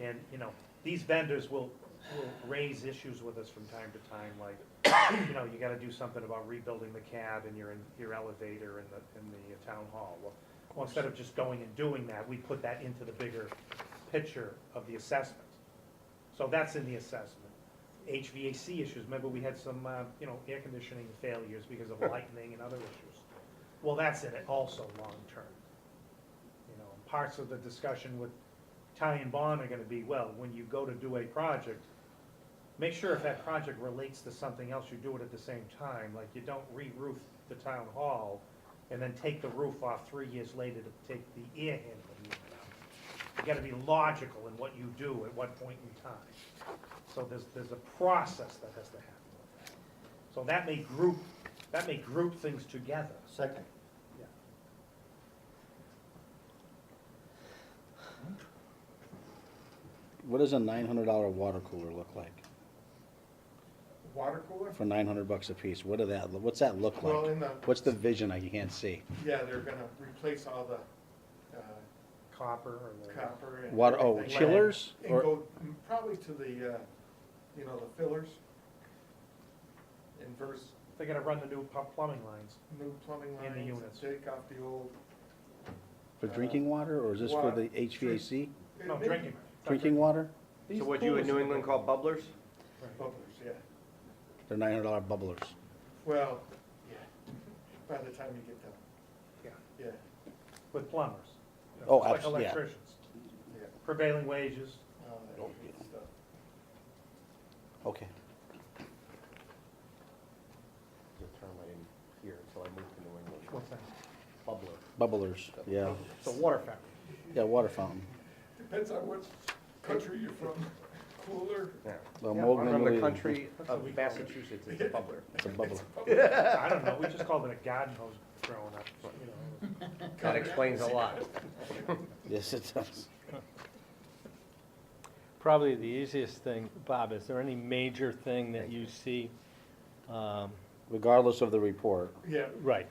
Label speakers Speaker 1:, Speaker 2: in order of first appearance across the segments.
Speaker 1: And, you know, these vendors will, will raise issues with us from time to time, like, you know, you gotta do something about rebuilding the cab and your, your elevator in the, in the town hall. Well, Well, instead of just going and doing that, we put that into the bigger picture of the assessment. So that's in the assessment. HVAC issues, remember we had some, uh, you know, air conditioning failures because of lightning and other issues. Well, that's in it also long-term. You know, parts of the discussion with Ty and Bond are gonna be, well, when you go to do a project, make sure if that project relates to something else, you do it at the same time, like you don't re-roof the town hall and then take the roof off three years later to take the air handling unit out. You gotta be logical in what you do at what point in time. So there's, there's a process that has to happen with that. So that may group, that may group things together.
Speaker 2: Second.
Speaker 1: Yeah.
Speaker 3: What does a nine hundred dollar water cooler look like?
Speaker 4: Water cooler?
Speaker 3: For nine hundred bucks a piece, what do that, what's that look
Speaker 4: Well,
Speaker 3: like?
Speaker 4: in the,
Speaker 3: What's the vision I can't see?
Speaker 4: yeah, they're gonna replace all the uh,
Speaker 1: Copper or whatever.
Speaker 4: copper and.
Speaker 3: Water, oh,
Speaker 4: everything.
Speaker 3: chillers
Speaker 4: And
Speaker 3: or,
Speaker 4: go mm, probably to the, uh, you know, the fillers. Inverse
Speaker 1: They gotta run the new pu- plumbing lines.
Speaker 4: new plumbing
Speaker 1: And the
Speaker 4: lines,
Speaker 1: units.
Speaker 4: take off the old.
Speaker 3: for drinking water, or is this for
Speaker 4: Water.
Speaker 3: the HVAC?
Speaker 1: No,
Speaker 4: maybe
Speaker 1: Oh, drinking.
Speaker 3: Drinking water?
Speaker 1: These
Speaker 2: So what you in
Speaker 1: coolers-
Speaker 2: New England call bubblers?
Speaker 1: Right.
Speaker 4: Bubblers, yeah.
Speaker 3: They're nine hundred dollar bubblers.
Speaker 4: Well, yeah, by the time you get done,
Speaker 1: Yeah,
Speaker 4: yeah,
Speaker 1: With plumbers. You know,
Speaker 3: Oh,
Speaker 1: just like
Speaker 3: abs- yeah.
Speaker 1: Electricians,
Speaker 4: yeah,
Speaker 1: prevailing wages.
Speaker 4: all that
Speaker 3: Don't
Speaker 4: good
Speaker 3: get-
Speaker 4: stuff.
Speaker 3: Okay.
Speaker 2: The term I didn't hear until I moved to New England.
Speaker 1: What's that?
Speaker 2: Bubbler.
Speaker 3: Bubblers, yeah,
Speaker 1: It's a water fountain.
Speaker 3: yeah, water fountain.
Speaker 4: Depends on what country you're from, cooler.
Speaker 2: Yeah.
Speaker 3: Well,
Speaker 1: Yeah,
Speaker 3: Mogul
Speaker 2: From the
Speaker 3: really-
Speaker 2: country
Speaker 1: That's what we
Speaker 2: of
Speaker 1: call it.
Speaker 2: Massachusetts, it's a bubbler.
Speaker 3: It's a bubbler.
Speaker 1: I don't know, we just called it a garden hose growing up, you know.
Speaker 2: That explains a lot.
Speaker 3: Yes, it does.
Speaker 5: Probably the easiest thing, Bob, is there any major thing that you see? um,
Speaker 3: Regardless of the report,
Speaker 4: Yeah,
Speaker 5: Right,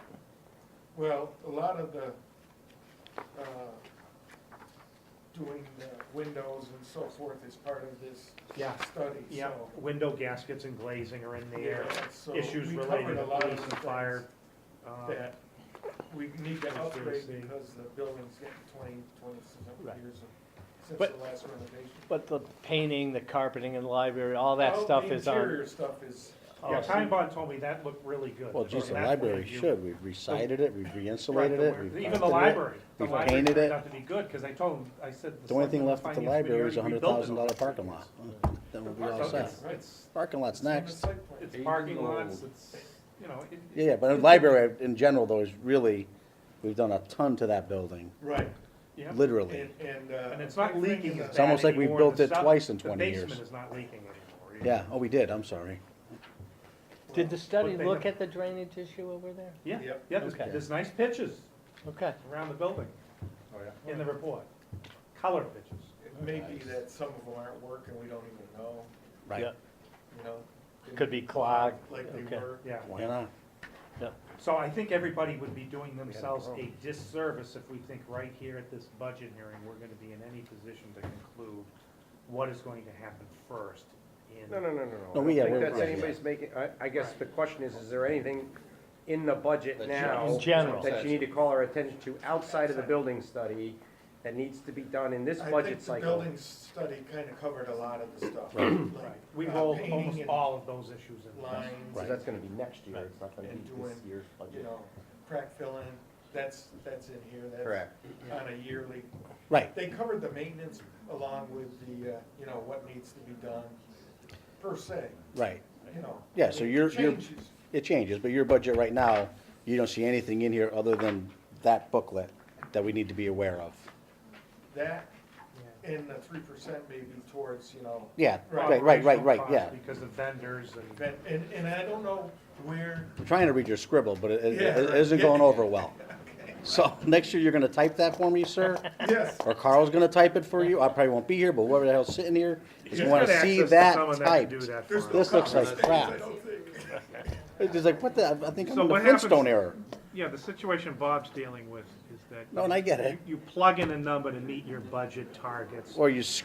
Speaker 4: Well, a lot of the, uh, doing the windows and so forth is part of this
Speaker 1: Yeah,
Speaker 4: study,
Speaker 1: yeah,
Speaker 4: so.
Speaker 1: window gaskets and glazing are in there,
Speaker 4: Yeah, so
Speaker 1: issues
Speaker 4: we
Speaker 1: related
Speaker 4: covered a
Speaker 1: to
Speaker 4: lot of
Speaker 1: police
Speaker 4: the
Speaker 1: and fire. um,
Speaker 4: things That we need to upgrade
Speaker 1: Conspiracy.
Speaker 4: because the building's getting twenty,
Speaker 5: Right.
Speaker 4: twenty-seven years of- since
Speaker 5: But-
Speaker 4: the last renovation.
Speaker 5: but the painting, the carpeting in the library, all that
Speaker 2: Oh,
Speaker 4: Well,
Speaker 5: stuff
Speaker 4: the
Speaker 5: is on,
Speaker 4: Interior stuff is,
Speaker 1: Yeah,
Speaker 5: Oh,
Speaker 1: Time Bond told me that looked really good.
Speaker 3: well,
Speaker 1: from
Speaker 3: geez, the
Speaker 1: that point
Speaker 3: library
Speaker 1: of view.
Speaker 3: should, we've recited it, we've
Speaker 1: Right,
Speaker 3: re-insulated
Speaker 1: the
Speaker 3: it,
Speaker 1: where-
Speaker 3: we've.
Speaker 1: Even
Speaker 3: painted
Speaker 1: the
Speaker 3: it.
Speaker 1: library, the
Speaker 3: we've
Speaker 1: library
Speaker 3: painted
Speaker 1: turned
Speaker 3: it.
Speaker 1: out to be good, because I told him, I said.
Speaker 3: The only
Speaker 1: selectmen
Speaker 3: thing left at the
Speaker 1: finance committee
Speaker 3: library is a
Speaker 1: already
Speaker 3: hundred
Speaker 1: rebuilt it
Speaker 3: thousand dollar
Speaker 1: all.
Speaker 3: parking lot, then we'll be all
Speaker 1: So
Speaker 3: set.
Speaker 1: It's, it's-
Speaker 3: Parking lot's
Speaker 4: it's on the
Speaker 3: next.
Speaker 4: site plan.
Speaker 1: it's parking lots, it's, you know. it-
Speaker 3: Yeah, yeah, but the library in general though is really, we've done a ton to that building,
Speaker 4: Right,
Speaker 1: yeah.
Speaker 3: literally.
Speaker 4: and, and, uh.
Speaker 1: And it's not
Speaker 4: I think
Speaker 1: leaking
Speaker 4: in
Speaker 1: as
Speaker 4: the-
Speaker 3: It's almost
Speaker 1: bad
Speaker 3: like we
Speaker 1: anymore. The
Speaker 3: built it
Speaker 1: sub-
Speaker 3: twice in 20
Speaker 1: The
Speaker 3: years.
Speaker 1: basement is not leaking anymore. either.
Speaker 3: Yeah, oh, we did, I'm sorry.
Speaker 5: did the study
Speaker 1: But they
Speaker 5: look
Speaker 1: have-
Speaker 5: at the drainage issue over there?
Speaker 1: Yeah,
Speaker 4: Yep.
Speaker 1: yeah, there's,
Speaker 5: Okay.
Speaker 1: there's nice pitches
Speaker 5: Okay,
Speaker 1: around the building
Speaker 4: Oh, yeah.
Speaker 1: in the report, color pitches.
Speaker 4: It may be that some of them aren't working, we don't even know,
Speaker 3: Right,
Speaker 5: Yeah.
Speaker 4: you know?
Speaker 5: Could be clogged,
Speaker 4: Like they
Speaker 5: okay.
Speaker 4: were.
Speaker 1: Yeah,
Speaker 3: why not?
Speaker 1: so I think everybody would be doing themselves a
Speaker 2: problem.
Speaker 1: disservice if we think right here at this budget hearing, we're gonna be in any position to conclude what is going to happen first in.
Speaker 2: No, no, no, no, no.
Speaker 3: No, we- yeah,
Speaker 2: I
Speaker 3: we're-
Speaker 2: don't think that's
Speaker 3: yeah, yeah.
Speaker 2: anybody's making, I, I guess the question is, is there anything in the budget
Speaker 6: That you-
Speaker 2: now?
Speaker 5: In general.
Speaker 2: That you need to call our attention to outside of the building study that needs to be done in this
Speaker 4: I think
Speaker 2: budget
Speaker 4: the
Speaker 2: cycle?
Speaker 4: building study kind of covered a lot of the stuff. like,
Speaker 1: Right, we
Speaker 4: uh,
Speaker 1: roll
Speaker 4: painting
Speaker 1: almost
Speaker 4: and
Speaker 1: all of those issues in.
Speaker 4: Lines,
Speaker 2: So
Speaker 3: Right.
Speaker 2: that's gonna be next year, it's not gonna
Speaker 4: And
Speaker 2: be this
Speaker 4: doing,
Speaker 2: year's
Speaker 4: you
Speaker 2: budget.
Speaker 4: know, crack filling, that's, that's in here, that's
Speaker 2: Correct.
Speaker 4: on a yearly.
Speaker 3: Right,
Speaker 4: They covered the maintenance along with the, uh, you know, what needs to be done per se,
Speaker 3: right.
Speaker 4: you know.
Speaker 3: Yeah, so
Speaker 4: It
Speaker 3: you're- you're-
Speaker 4: Changes,
Speaker 3: It changes, but your budget right now, you don't see anything in here other than that booklet that we need to be aware of.
Speaker 4: that
Speaker 1: Yeah.
Speaker 4: and the three percent maybe towards, you know,
Speaker 3: Yeah, right, right, right, right,
Speaker 1: Operational
Speaker 3: yeah.
Speaker 1: costs Because of vendors and.
Speaker 4: ven- and, and I don't know where
Speaker 3: I'm trying to read your scribble, but it, it-
Speaker 4: Yeah,
Speaker 3: it
Speaker 4: right.
Speaker 3: isn't going over well. So next year, you're gonna type that for me, sir?
Speaker 4: Yes,
Speaker 3: Or Carl's gonna type it for you? I probably won't be here, but whoever the hell's sitting here is
Speaker 1: He's
Speaker 3: gonna
Speaker 1: got access
Speaker 3: see
Speaker 1: to
Speaker 3: that
Speaker 1: someone that can do
Speaker 3: typed.
Speaker 1: that for
Speaker 4: there's
Speaker 1: him.
Speaker 4: no.
Speaker 3: This looks like
Speaker 4: conversations, I
Speaker 3: crap.
Speaker 4: don't think.
Speaker 3: It's just like, what the, I think I'm
Speaker 7: So
Speaker 3: in the
Speaker 7: what happens-
Speaker 3: Flintstone era.
Speaker 7: Yeah, the situation Bob's dealing with is that.
Speaker 3: No, and I get it.
Speaker 7: You you plug in a number to meet your budget targets.
Speaker 3: Or you s-